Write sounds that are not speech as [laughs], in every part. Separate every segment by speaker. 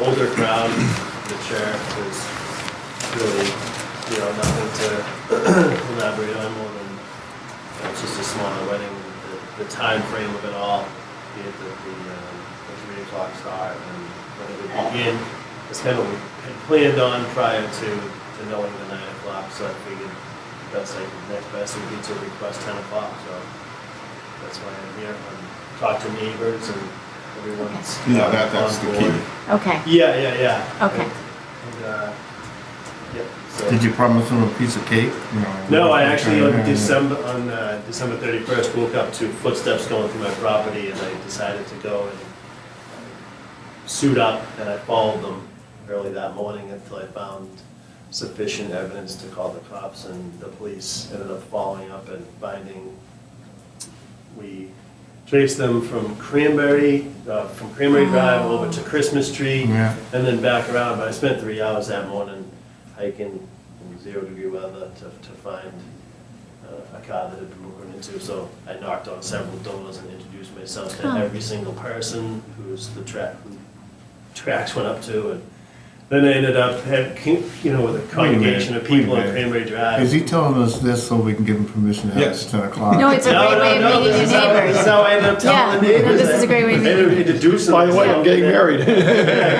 Speaker 1: older crowd, the chair was really, you know, nothing to [clears throat] elaborate on more than, you know, it's just a smaller wedding. The- The time frame of it all, be it the, the, um, the three o'clock start and when it would begin, it's kind of what we had planned on prior to, to knowing the nine o'clock, so I figured that's like the next best would be to request ten o'clock, so that's why I'm here, and talk to neighbors and everyone's.
Speaker 2: Yeah, that, that's
Speaker 1: on
Speaker 2: the
Speaker 1: board.
Speaker 2: key.
Speaker 3: Okay.
Speaker 1: Yeah, yeah, yeah.
Speaker 3: Okay.
Speaker 1: And, uh, yep, so-
Speaker 2: Did you promise them a piece of cake? No.
Speaker 1: No, I actually
Speaker 2: Uh,
Speaker 1: on December on uh, December thirty first woke up to footsteps going through my property, and I decided to go and suit up, and I followed them early that morning until I found sufficient evidence to call the cops, and the police ended up following up and finding we traced them from Cranberry, uh, from Cranberry Drive over to Christmas Tree,
Speaker 2: Oh. Yeah.
Speaker 1: and then back around, but I spent three hours that morning hiking in zero degree weather to, to find uh, a car that had been broken into, so I knocked on several doors and introduced myself to
Speaker 3: Huh.
Speaker 1: every single person who's the track, who tracks went up to, and then I ended up, had, you know, with a congregation of
Speaker 2: wait a
Speaker 1: people on
Speaker 2: minute.
Speaker 1: Cranberry Drive.
Speaker 2: Is he telling us this so we can give him permission to have it
Speaker 4: Yes.
Speaker 2: at ten o'clock?
Speaker 3: No, it's a
Speaker 1: No,
Speaker 3: great
Speaker 1: no,
Speaker 3: way of
Speaker 1: no,
Speaker 3: meeting
Speaker 1: this
Speaker 3: your
Speaker 1: is how- This is
Speaker 3: neighbors.
Speaker 1: how I ended up telling the
Speaker 3: Yeah, no,
Speaker 1: neighbors.
Speaker 3: this is a great way of
Speaker 1: I ended up introducing
Speaker 4: By the way,
Speaker 1: myself.
Speaker 4: I'm getting married.
Speaker 1: Yeah,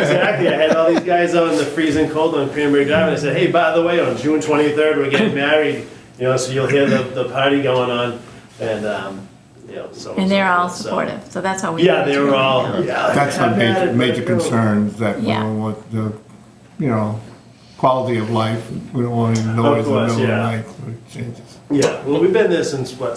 Speaker 1: exactly. I had all these guys out in the freezing cold on Cranberry Drive, and I said, "Hey, by the way, on June 23rd, we're getting married. You know, so you'll hear the, the party going on, and um, you know, so."
Speaker 3: And they're all
Speaker 1: so-
Speaker 3: supportive, so that's how we.
Speaker 1: Yeah, they were all. Yeah,
Speaker 2: That's
Speaker 1: how
Speaker 2: my major,
Speaker 1: bad-
Speaker 2: major concern, is that we
Speaker 3: Yeah.
Speaker 2: don't want the, you know, quality of life, we don't want any noise in the
Speaker 1: course,
Speaker 2: middle of the
Speaker 1: yeah.
Speaker 2: night, when it changes.
Speaker 1: Yeah, well, we've been there since what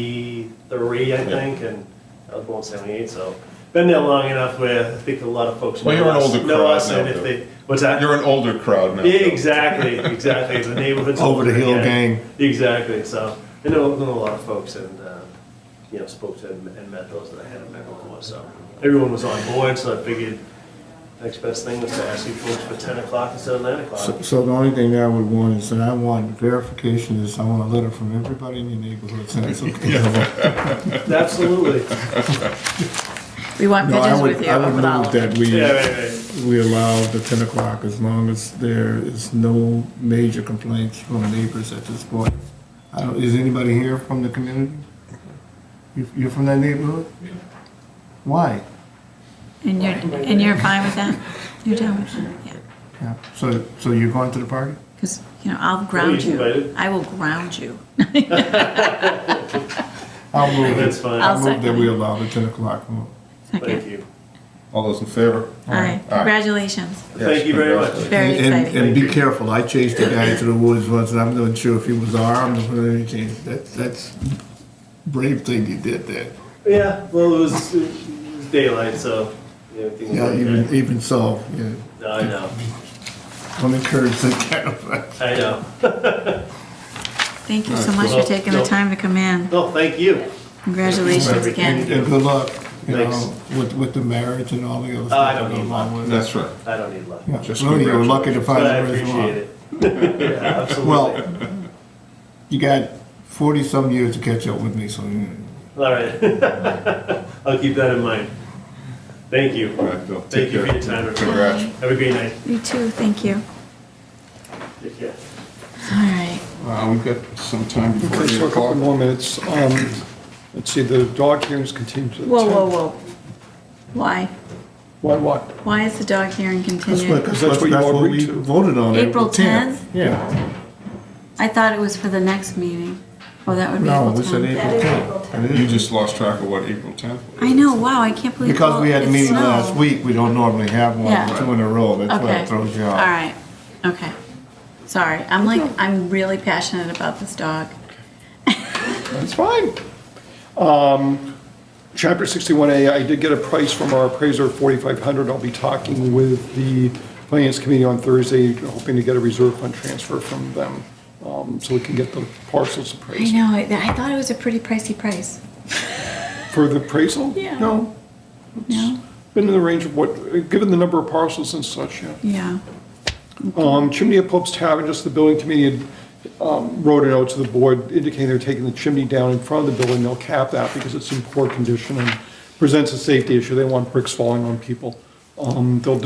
Speaker 1: 73, I think, and I was born 78, so been there long enough where I think a lot of folks
Speaker 4: Well,
Speaker 1: know
Speaker 4: you're an
Speaker 1: us,
Speaker 4: older
Speaker 1: know
Speaker 4: crowd
Speaker 1: us,
Speaker 4: now,
Speaker 1: and if
Speaker 4: though.
Speaker 1: they what's that?
Speaker 4: You're an older crowd now.
Speaker 1: Exactly, exactly. The neighborhood's
Speaker 4: [laughs]
Speaker 2: Over the hill
Speaker 1: yeah.
Speaker 2: gang.
Speaker 1: Exactly. So I know, know a lot of folks, and uh, you know, spoke to and and met those that I hadn't met before. So everyone was on board. So I figured next best thing was to ask you folks for ten o'clock instead of nine o'clock.
Speaker 4: [laughs]
Speaker 2: So, so the only thing that I would want is, that I want verification is, I want a letter from everybody in your neighborhood saying it's okay.
Speaker 1: Absolutely.
Speaker 3: We want
Speaker 2: No, I
Speaker 3: pictures
Speaker 2: would,
Speaker 3: with you
Speaker 2: I would
Speaker 3: of all
Speaker 2: move
Speaker 3: of them.
Speaker 2: that we.
Speaker 1: Yeah, right, right.
Speaker 2: we allow the ten o'clock as long as there is no major complaints from neighbors at this point. I don't, is anybody here from the community? You- You're from that neighborhood? Why?
Speaker 3: And you're, and you're fine with that? You're down with it, yeah.
Speaker 2: Yeah, So, so you're going to the party?
Speaker 3: Because, you know, I'll ground
Speaker 1: he's
Speaker 3: you.
Speaker 1: invited.
Speaker 3: I will ground you.
Speaker 2: I'll
Speaker 1: [laughs]
Speaker 2: move
Speaker 1: That's
Speaker 2: it.
Speaker 1: fine.
Speaker 2: I'll move that
Speaker 3: second
Speaker 2: we
Speaker 3: it.
Speaker 2: allow the ten o'clock. vote.
Speaker 1: Thank
Speaker 3: Okay.
Speaker 1: you.
Speaker 4: All those in
Speaker 3: All
Speaker 4: favor?
Speaker 3: right,
Speaker 4: All right.
Speaker 3: congratulations.
Speaker 1: Thank you very much.
Speaker 3: Very
Speaker 2: And- and-
Speaker 3: exciting.
Speaker 2: And be careful, I chased the guy to the woods once, and I'm not sure if he was armed or anything. That, that's brave thing you did there.
Speaker 1: Yeah. Well, it was, it was daylight, so yeah, everything was
Speaker 2: Yeah,
Speaker 1: okay.
Speaker 2: even, even so, yeah.
Speaker 1: No, I know.
Speaker 2: Don't encourage that kind of thing.
Speaker 1: I know.
Speaker 3: Thank you so much for
Speaker 1: Well,
Speaker 3: taking the
Speaker 1: no.
Speaker 3: time to come in.
Speaker 1: No, thank you.
Speaker 3: Congratulations
Speaker 2: And,
Speaker 3: again.
Speaker 2: and good luck, you know,
Speaker 1: Thanks.
Speaker 2: with, with the marriage and all the other
Speaker 1: Oh, I
Speaker 2: stuff that
Speaker 1: don't
Speaker 2: goes
Speaker 1: need
Speaker 2: along with it.
Speaker 4: That's right.
Speaker 1: I don't need luck.
Speaker 2: Yeah,
Speaker 4: Just
Speaker 2: Really, you were lucky to find
Speaker 1: But I
Speaker 2: the
Speaker 1: appreciate
Speaker 2: reservoir.
Speaker 1: it. [laughs] Yeah, absolutely. All
Speaker 2: Well, you got forty-some years to catch up with me, so you
Speaker 1: right. [laughs] I'll keep that in mind. Thank you.
Speaker 4: All right, Bill.
Speaker 1: Thank
Speaker 4: Take
Speaker 1: you for
Speaker 4: care.
Speaker 1: your time. everyone.
Speaker 4: Congrats.
Speaker 1: Have a great night.
Speaker 3: You too, thank you.
Speaker 1: Take care.
Speaker 3: All right.
Speaker 4: Uh, we've got some time before
Speaker 5: Okay,
Speaker 4: eight
Speaker 5: so a couple
Speaker 4: o'clock.
Speaker 5: more minutes. Um, Let's see, the dog hearings continue to the 10th.
Speaker 3: Whoa, whoa, whoa. Why?
Speaker 5: Why, what?
Speaker 3: Why is the dog hearing
Speaker 2: That's what,
Speaker 3: continued?
Speaker 2: that's
Speaker 5: That's
Speaker 2: what
Speaker 5: what you all
Speaker 2: we
Speaker 5: agreed to.
Speaker 2: voted on, April
Speaker 3: April
Speaker 2: tenth.
Speaker 3: 10th?
Speaker 2: Yeah,
Speaker 3: I thought it was for the next meeting. Oh, that would be
Speaker 2: no,
Speaker 3: April
Speaker 2: we said
Speaker 3: 10th.
Speaker 2: April tenth.
Speaker 4: You just lost track of what April 10th was.
Speaker 3: I know, wow, I can't believe.
Speaker 2: Because we had a
Speaker 3: it's
Speaker 2: meeting
Speaker 3: snow.
Speaker 2: last week, we don't normally have
Speaker 3: Yeah.
Speaker 2: one, two in a row, that's why
Speaker 3: Okay.
Speaker 2: it throws you
Speaker 3: All
Speaker 2: off.
Speaker 3: right, okay. Sorry, I'm like, I'm really passionate about this dog.
Speaker 5: That's fine. Um, Chapter 61A, I did get a price from our appraiser, 4,500. I'll be talking with the Finance Committee on Thursday, hoping to get a reserve fund transfer from them, um, so we can get the parcels
Speaker 3: I
Speaker 5: appraised.
Speaker 3: know, I I thought it was a pretty pricey price.
Speaker 5: For the appraisal?
Speaker 3: Yeah.
Speaker 5: No,
Speaker 3: No?
Speaker 5: been in the range of what, given the number of parcels and such, yeah.
Speaker 3: Yeah.
Speaker 5: Um, Chimney at Pope's Tavern, just the building committee had um, wrote a note to the board indicating they're taking the chimney down in front of the building. They'll cap that because it's in poor condition and presents a safety issue. They don't want bricks falling on people. Um, They'll